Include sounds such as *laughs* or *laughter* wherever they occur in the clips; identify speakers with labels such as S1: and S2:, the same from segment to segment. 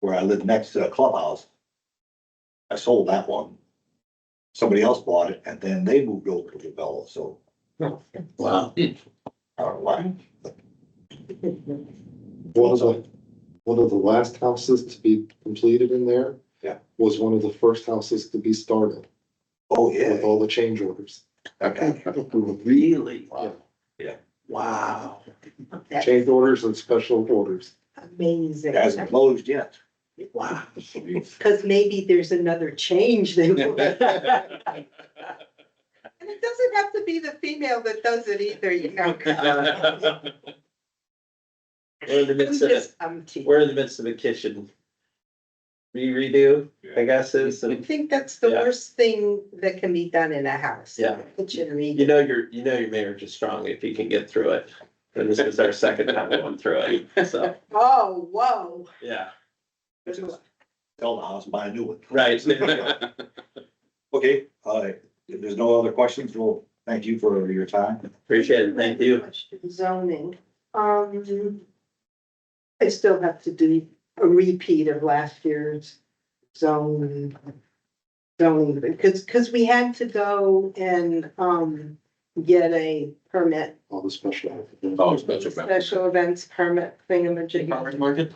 S1: where I lived next to a clubhouse. I sold that one. Somebody else bought it and then they moved over to the Bella, so
S2: Wow.
S1: I don't know why.
S2: One of the, one of the last houses to be completed in there.
S1: Yeah.
S2: Was one of the first houses to be started
S1: Oh,
S2: with
S1: yeah,
S2: all the change orders.
S1: okay,
S3: Really?
S2: Wow.
S1: Yeah.
S3: Wow.
S4: That's
S2: Change orders and special orders.
S4: amazing.
S1: it hasn't closed yet.
S5: *laughs*
S3: Wow.
S4: Cause maybe there's another change they. And it doesn't have to be the female that does it either,
S5: *laughs*
S4: you know.
S5: We're in the
S4: I'm
S5: midst of,
S4: just- I'm teasing.
S5: we're in the midst of a kitchen. re- Redo, I guess is,
S4: I
S5: and
S4: think that's the
S5: Yeah.
S4: worst thing that can be done in a house.
S5: Yeah.
S4: Kitchen remodel.
S5: you know, your, you know, your marriage is strong if you can get through it. And this is our second time going through it, so,
S4: Oh, whoa.
S5: yeah,
S1: Sell the house, buy a new one.
S5: right.
S1: Okay, uh, if there's no other questions, well, thank you for your time.
S5: Appreciate it, thank you.
S4: Zoning, um. I still have to do a repeat of last year's zone. Zoning, because, because we had to go and, um, get a permit.
S2: All the special.
S3: Oh, special permit.
S4: Special events permit thingamajig.
S3: market?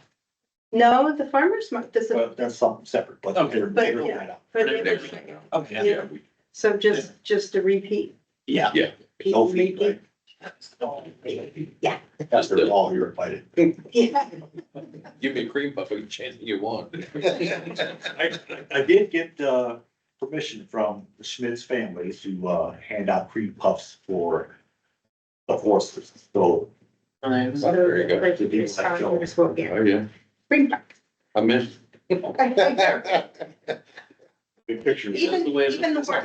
S4: No, the farmer's market doesn't,
S1: But that's something separate, but
S3: Okay.
S1: they're-
S4: But,
S1: they're
S4: yeah.
S1: right up.
S4: but it was,
S3: Okay.
S4: yeah, so just, just a repeat.
S1: Yeah.
S3: Yeah.
S4: people
S1: No fee, right?
S4: Yeah.
S1: After all, you're invited.
S4: Yeah.
S3: Give me a cream puff, any chance you
S4: *laughs*
S3: want.
S1: I, I did get, uh, permission from the Schmidt's family to, uh, hand out cream puffs for the horses, so.
S3: There you go.
S4: Like, it's time, it's what we-
S3: Oh, yeah,
S4: Bring back.
S3: I missed.
S2: Big picture.
S4: Even, even the work.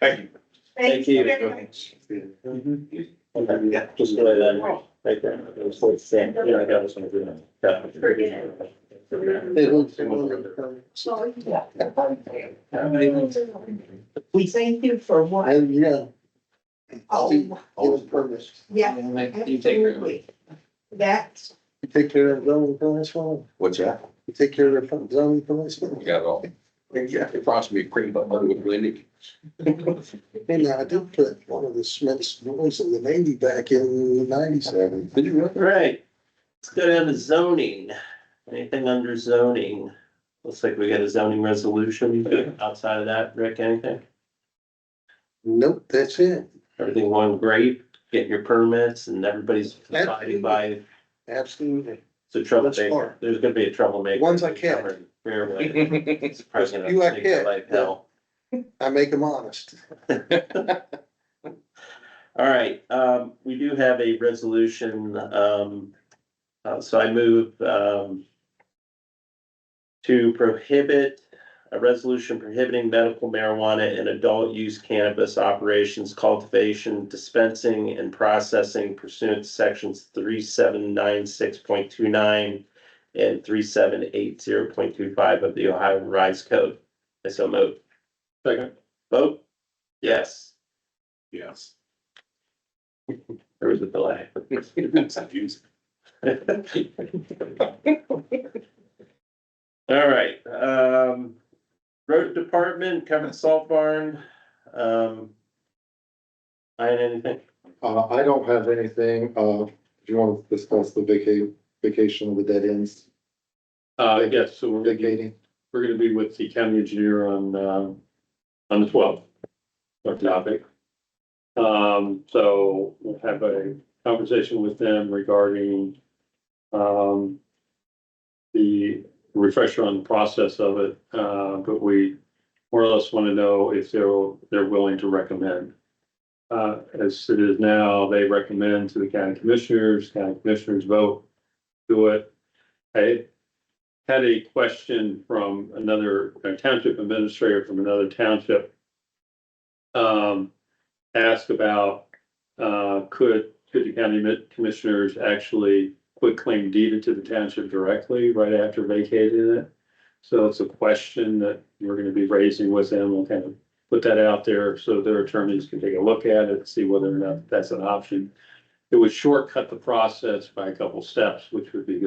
S1: Thank you.
S4: Thank you very much.
S5: Yeah, just really that, like that, it was like saying, yeah, I got this one.
S4: Forget So, yeah. We thank you for what.
S2: yeah.
S4: Oh,
S2: Always purpose.
S4: yeah, absolutely. That's,
S2: You take care of zoning for this one?
S3: What's that?
S2: You take care of the zoning for this one?
S3: You got it all. Yeah, it cost me a cream puff, I would really need.
S2: Hey, I did put one of the Smiths, boys in the Navy back in ninety-seven.
S3: Did you really?
S5: Right, let's go down to zoning, anything under zoning? Looks like we got a zoning resolution, outside of that, Rick, anything?
S2: Nope, that's it.
S5: Everything going great, getting your permits and everybody's abiding by,
S2: Absolutely.
S5: it's a
S2: That's
S5: troublemaker,
S2: smart.
S5: there's gonna be a troublemaker.
S2: Ones I can.
S5: Fairway.
S2: *laughs*
S5: It's president of
S2: You I
S5: Big
S2: can.
S5: Life Hill.
S2: I make them honest.
S5: *laughs* All right, um, we do have a resolution, um, uh, so I move, um, to prohibit, a resolution prohibiting medical marijuana and adult use cannabis operations, cultivation, dispensing, and processing pursuant to sections three seven nine six point two nine and three seven eight zero point two five of the Ohio Revised Code. I so move.
S3: Second.
S5: Vote? Yes.
S3: Yes.
S5: There was a delay. All right, um, road department, Kevin Salt Barn, um. Ian, anything?
S2: Uh, I don't have anything, uh, if you want to discuss the vaca- vacation of the dead ends,
S6: Uh, yes, so we're, gonna-
S2: vacating.
S6: we're gonna be with the county engineer on, um, on the twelfth, our topic. Um, so we'll have a conversation with them regarding, um, the refresher on the process of it, uh, but we more or less want to know if they're, they're willing to recommend. Uh, as it is now, they recommend to the county commissioners, county commissioners vote, do it. I, had a question from another a township administrator from another township. Um, ask about, uh, could, could the county mi- commissioners actually quit claim deed it to the township directly right after vacating it? So it's a question that we're gonna be raising with them. We'll kind of put that out there so their attorneys can take a look at it, see whether or not that's an option. It would shortcut the process by a couple steps, which would be good.